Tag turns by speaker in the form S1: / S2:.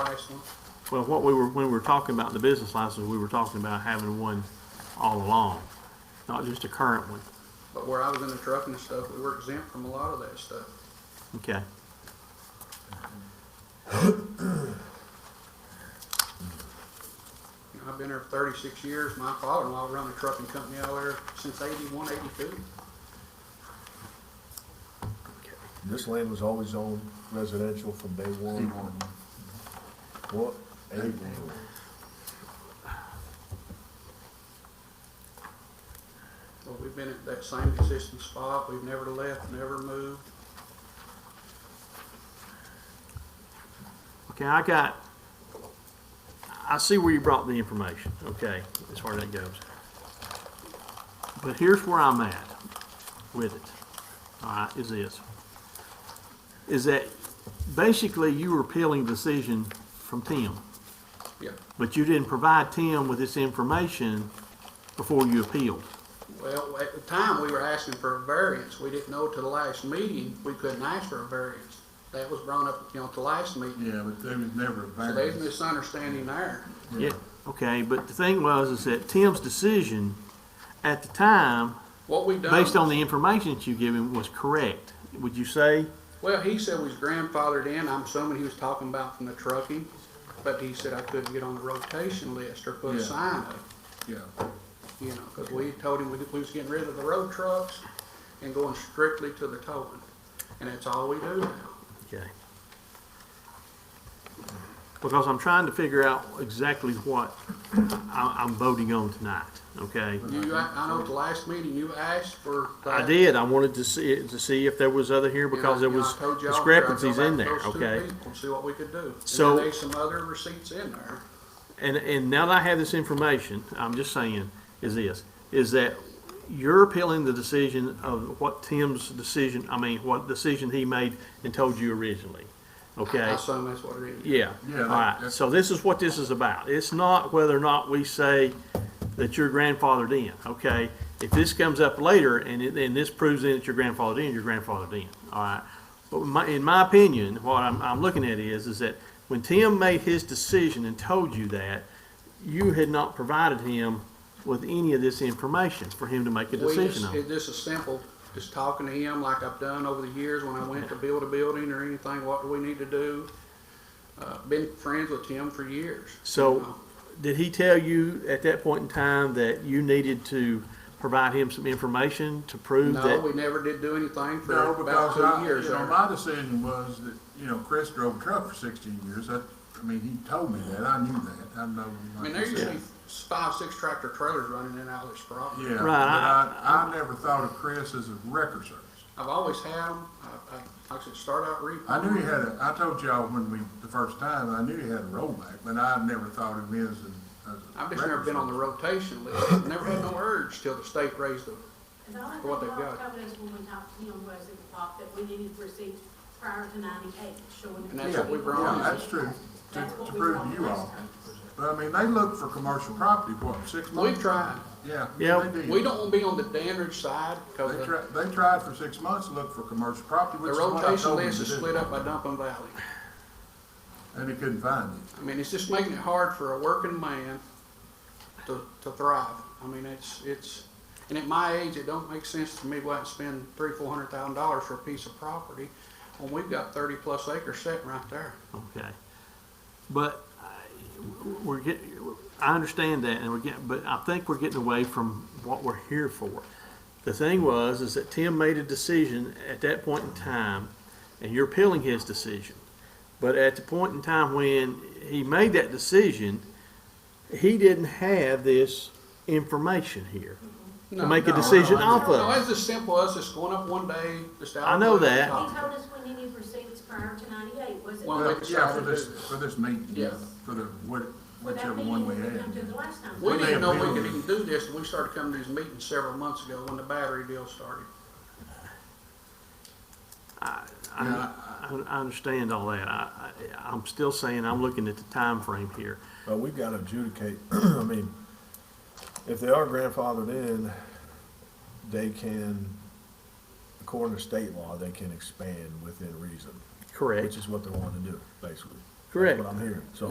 S1: license.
S2: Well, what we were, when we were talking about the business license, we were talking about having one all along, not just a current one.
S1: But where I was in the trucking and stuff, we were exempt from a lot of that stuff.
S2: Okay.
S1: You know, I've been there for thirty-six years. My father-in-law run a trucking company out there since eighty-one, eighty-two.
S3: This land was always owned residential from day one. What? Eight.
S1: Well, we've been at that same existing spot. We've never left, never moved.
S2: Okay, I got, I see where you brought the information, okay, as far as that goes. But here's where I'm at with it, all right, is this. Is that basically you were appealing decision from Tim,
S1: Yeah.
S2: but you didn't provide Tim with this information before you appealed.
S1: Well, at the time, we were asking for a variance. We didn't know till the last meeting, we couldn't ask for a variance. That was brought up, you know, at the last meeting.
S4: Yeah, but there was never a
S1: So there's
S4: variance.
S1: misunderstanding there.
S2: Yeah. Okay, but the thing was is that Tim's decision at the time
S1: What we've done.
S2: based on the information that you give him was correct, would you say?
S1: Well, he said we was grandfathered in. I'm assuming he was talking about from the trucking, but he said I couldn't get on the rotation list or put a
S4: Yeah.
S1: sign up,
S4: Yeah,
S1: you know, because we told him we, we was getting rid of the road trucks and going strictly to the towing. And that's all we do now.
S2: Okay. Because I'm trying to figure out exactly what I, I'm voting on tonight, okay?
S1: You, I, I know at the last meeting you asked for.
S2: Mm-hmm. I
S1: that.
S2: did, I wanted to see, to see if there was other here
S1: And I-
S2: because there
S1: and I
S2: was
S1: told y'all,
S2: discrepancies
S1: I'll go
S2: in
S1: back
S2: there,
S1: to those two
S2: okay?
S1: people and See what we could do. And then
S2: So-
S1: there's some other receipts in there.
S2: And, and now that I have this information, I'm just saying, is this, is that you're appealing the decision of what Tim's decision, I mean, what decision he made and told you originally, okay?
S1: I assume that's what it is.
S2: Yeah,
S4: Yeah,
S2: all
S4: that-
S2: right,
S4: that-
S2: so this is what this is about. It's not whether or not we say that you're grandfathered in, okay? If this comes up later and it, and this proves then that you're grandfathered in, you're grandfathered in, all right? But my, in my opinion, what I'm, I'm looking at is, is that when Tim made his decision and told you that, you had not provided him with any of this information for him to make a
S1: We
S2: decision
S1: just,
S2: on.
S1: it just as simple, just talking to him like I've done over the years when I went to build a building or anything, what do we need to do? Uh, been friends with him for years. you
S2: So,
S1: know.
S2: did he tell you at that point in time that you needed to provide him some information to prove
S1: No,
S2: that?
S1: we never did do anything for
S4: no,
S1: about
S4: because
S1: two
S4: I,
S1: years
S4: you know,
S1: there.
S4: my decision was that, you know, Chris drove a truck for sixteen years, I, I mean, he told me that, I knew that, I know.
S1: I mean, there used to be five, six tractor trailers running in and out of this property.
S4: Yeah, but
S2: Right,
S4: I, I never thought of Chris as a wrecker service.
S1: I've always had them, I, I, like I said, start out re.
S4: I knew he had a, I told y'all when we, the first time, I knew he had a rollback, but I never thought of him as a, as a.
S1: I've just never
S4: wrecker
S1: been on the
S4: service.
S1: rotation list, never had no urge till the state raised them.
S5: The only
S1: What
S5: thing
S1: they've
S5: I was
S1: got.
S5: told is when we talked to him was at the top that we needed receipts prior to ninety-eight showing.
S1: And
S5: that
S1: that's what we brought on.
S4: Yeah, that's true, to,
S5: That's what
S4: to
S5: we
S4: prove
S5: brought
S4: to you
S5: last
S4: all.
S5: time.
S4: But I mean, they look for commercial property, what, six months?
S1: We've tried,
S4: Yeah.
S2: Yeah.
S4: they do.
S1: we don't wanna be on the Dandridge side, cause
S4: They
S1: the-
S4: tried, they tried for six months to look for commercial property,
S1: The
S4: which is what I
S1: rotation
S4: told them
S1: list
S4: to
S1: is split
S4: do.
S1: up by Dumpin Valley.
S4: And they couldn't find it.
S1: I mean, it's just making it hard for a working man to, to thrive. I mean, it's, it's, and at my age, it don't make sense to me why I'd spend three, four hundred thousand dollars for a piece of property when we've got thirty plus acres sitting right there.
S2: Okay. But I- we're getting, I understand that and we're getting, but I think we're getting away from what we're here for. The thing was, is that Tim made a decision at that point in time and you're appealing his decision. But at the point in time when he made that decision, he didn't have this information here.
S1: No,
S2: make a
S1: no, no,
S2: decision
S1: no,
S2: off of.
S1: No, it's as simple as just going up one day, just out.
S2: I know
S1: of the
S2: that.
S5: He told
S1: top.
S5: us we needed receipts prior to ninety-eight, was it?
S1: Well,
S4: Well,
S1: they
S4: yeah,
S1: decided
S4: for
S1: to
S4: this,
S1: do this.
S4: for this meeting, yeah,
S1: Yes.
S4: for the, what-
S5: Well, that
S4: whichever one we
S5: meeting didn't
S4: had.
S5: Come to the last time.
S1: We
S4: When they
S1: didn't know we
S4: appealed
S1: could
S4: it.
S1: even do this, and we started coming to these meetings several months ago when the battery deal started.
S2: I, I, I understand all that. I, I, I'm still saying I'm looking at the time frame here.
S3: But we've got to adjudicate, I mean, if they are grandfathered in, they can, according to state law, they can expand within reason,
S2: Correct.
S3: which is what they want to do, basically.
S6: Correct.
S4: That's what I'm hearing, so.